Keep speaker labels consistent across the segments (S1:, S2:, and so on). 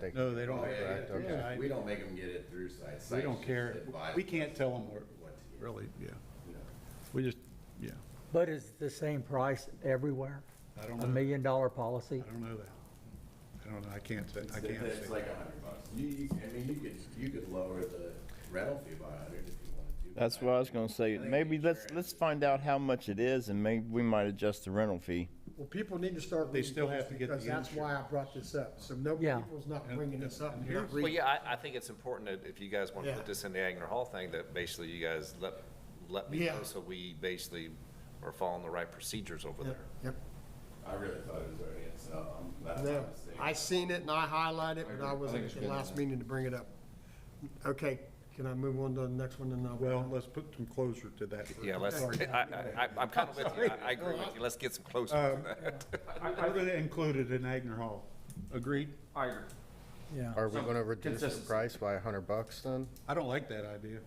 S1: They-
S2: No, they don't.
S1: Oh, Yeah,
S2: Right, okay.
S1: yeah,
S3: We don't make them get it through site.
S2: We
S3: Site
S2: don't
S3: just
S2: care.
S3: advise
S2: We can't tell them where,
S3: what to do,
S2: really, yeah.
S3: you know.
S2: We just, yeah.
S4: But is it the same price everywhere?
S2: I don't know.
S4: A million dollar policy?
S2: I don't know that. I don't know. I can't, say- I can't
S3: It's
S2: say.
S3: like a hundred bucks. You, you, I mean, you could, you could lower the rental fee by a hundred if you wanted to. but
S5: That's what I was gonna say.
S3: I think
S5: Maybe let's,
S3: insurance
S5: let's find out how much it is and maybe we might adjust the rental fee.
S6: Well, people need to start.
S2: They
S6: reading
S2: still have
S6: things
S2: to get the
S6: Because that's why I brought this up. So no,
S4: Yeah.
S6: people's not bringing this up here.
S7: Well, yeah, I, I think it's important that if you guys want to
S6: Yeah.
S7: put this in the Agner Hall thing, that basically you guys let, let me
S6: Yeah.
S7: know, so we basically are following the right procedures
S6: Yep,
S7: over there.
S6: yep.
S3: I really thought it was already, in, so I'm glad I
S6: No,
S3: was there.
S6: I seen it and I highlighted it, but I wasn't at the last meeting to bring it up. Okay, can I move on to the next one and then? I'll-
S2: Well, let's put some closure to that. first.
S7: Yeah, let's,
S2: Sorry.
S7: I, I, I'm kind of with you, I, I agree with you, let's get some
S6: Um,
S7: closer to that.
S2: I I would have included in Agner Hall. Agreed?
S8: I agree.
S4: Yeah.
S1: Are we gonna reduce the
S8: consistency.
S1: price by a hundred bucks then?
S2: I don't like that idea.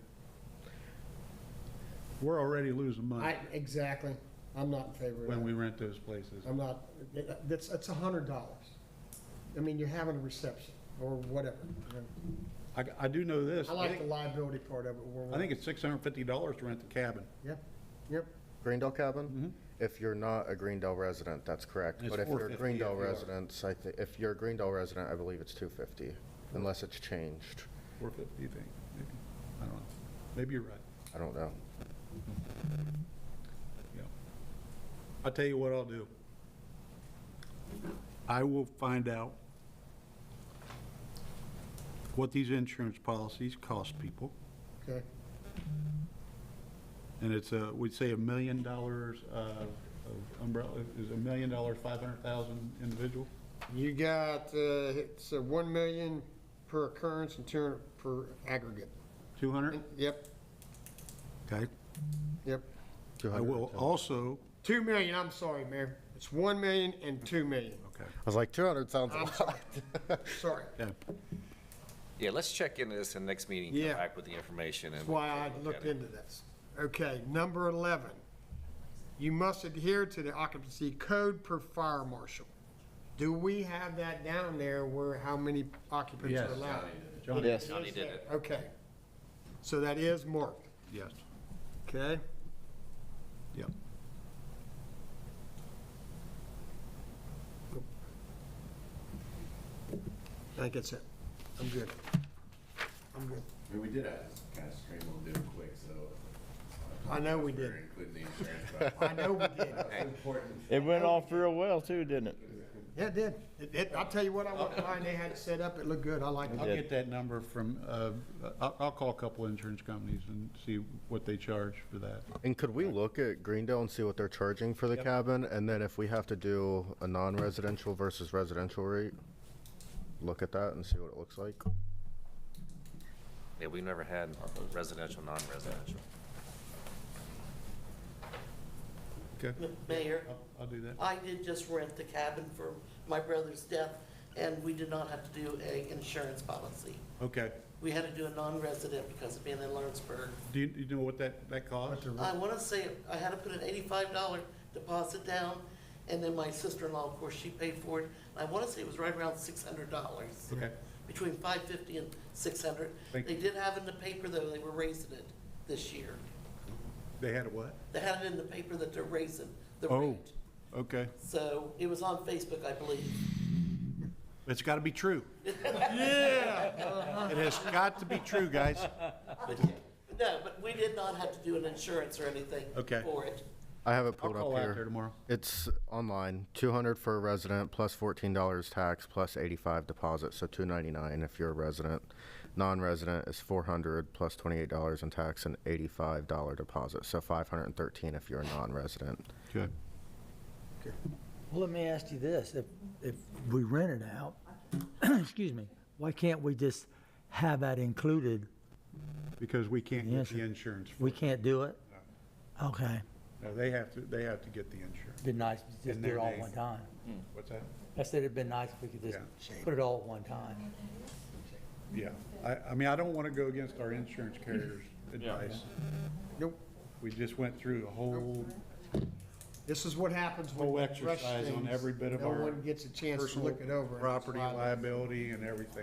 S2: We're already losing
S6: I,
S2: money
S6: exactly. I'm not in favor of
S2: when
S6: that.
S2: we rent those places.
S6: I'm not, that's, that's a hundred dollars. I mean, you're having a reception or whatever. you know.
S2: I, I do know this.
S6: I like the liability part of it. where
S2: I think it's six hundred and fifty dollars to rent the cabin.
S6: Yep, yep.
S1: Greendale cabin? If you're not a Greendale resident, that's correct.
S2: Mm-hmm. It's
S1: But if you're a
S2: $4.50
S1: Greendale
S2: if you are.
S1: resident, I think, if you're a Greendale resident, I believe it's two fifty, unless it's changed.
S2: Four fifty, you think? Maybe. I don't know. Maybe you're right.
S1: I don't know.
S2: Yeah. I'll tell you what I'll do. I will find out what these insurance policies cost people.
S6: Okay,
S2: And it's a, we'd say a million dollars uh, of umbrella, is a million dollars, 500,000 individual?
S6: you got, uh, it's uh, one million per occurrence and two hundred per aggregate.
S2: 200?
S6: Yep,
S2: Okay.
S6: yep.
S2: I will also,
S6: Two million, I'm sorry, Mayor. It's one million and two million.
S2: okay,
S1: I was like, two hundred sounds a
S6: I'm
S1: lot.
S6: Sorry.
S2: yeah.
S7: Yeah, let's check into this in the next meeting, come
S6: Yeah.
S7: back with the information and.
S6: That's why I
S7: look at
S6: looked
S7: it.
S6: into this. Okay, number 11. You must adhere to the occupancy code per fire marshal. Do we have that down there where how many occupants
S2: Yes.
S6: are allowed?
S2: Johnny?
S5: Yes,
S7: Johnny did it.
S6: Okay. So that is marked,
S2: Yes,
S6: okay?
S2: yep.
S6: I think that's it. I'm good. I'm good.
S3: I mean, we did have to kind of scramble and do it quick, so.
S6: I know we
S3: we're
S6: did.
S3: Including the insurance. but
S6: I know we did.
S3: It's important.
S5: It went off real well too, didn't it?
S6: Yeah, it did. It- it- I'll tell you what, I went by and they had it set up. It looked good. I liked
S2: I'll
S6: it.
S2: get that number from, uh, I'll, I'll call a couple insurance companies and see what they charge for that.
S1: And could we look at Greendale and see what they're charging for the cabin? And then if we have to do a non-residential versus residential rate, look at that and see what it looks like?
S7: Yeah, we've never had residential, non-residential.
S2: Okay,
S9: M- Mayor,
S2: I'll, I'll do that.
S9: I did just rent the cabin for my brother's death, and we did not have to do a insurance policy.
S2: Okay.
S9: We had to do a non-resident because of being in Lawrenceburg.
S2: Do you, you know what that, that costs?
S9: I want to say, I had to put an eighty-five dollar deposit down, and then my sister-in-law, of course, she paid for it. I want to say it was right around six hundred dollars.
S2: Okay.
S9: Between five fifty and six hundred.
S2: Thank
S9: They
S2: you.
S9: did have in the paper, though, they were raising it this year.
S2: They had a what?
S9: They had it in the paper that they're raising the
S2: Oh.
S9: rate.
S2: Okay.
S9: So it was on Facebook, I believe.
S2: It's got to be true. Yeah. It has got to be true, guys.
S9: No, but we did not have to do an insurance or anything
S2: Okay.
S9: for it.
S1: I have it
S2: I'll
S1: pulled up
S2: call out there
S1: here.
S2: tomorrow.
S1: It's online, two hundred for a resident, plus fourteen dollars tax, plus eighty-five deposit, so two ninety-nine if you're a resident. Non-resident is four hundred, plus twenty-eight dollars in tax and eighty-five dollar deposit, so five hundred and thirteen if you're a non-resident.
S2: Good.
S4: Well, let me ask you this, if, if we rent it out, excuse me, why can't we just have that included?
S2: Because we can't get the
S4: Yes.
S2: insurance. for
S4: We
S2: it.
S4: can't do it? Okay,
S2: No, they have to, they have to get the insurance.
S4: be nice, if we just
S2: In
S4: do it
S2: their
S4: all at
S2: name.
S4: one time.
S2: What's that?
S4: I said it'd been nice if we could just put it all at one time.
S2: Yeah. I, I mean, I don't want to go against our insurance carrier's advice.
S6: Nope.
S2: We just went through a whole,
S6: This is what happens when
S2: Whole
S6: you rush
S2: exercise on
S6: things.
S2: every bit of our
S6: No one gets a chance to
S2: personal
S6: look it over. and that's
S2: property
S6: why they-
S2: liability and everything.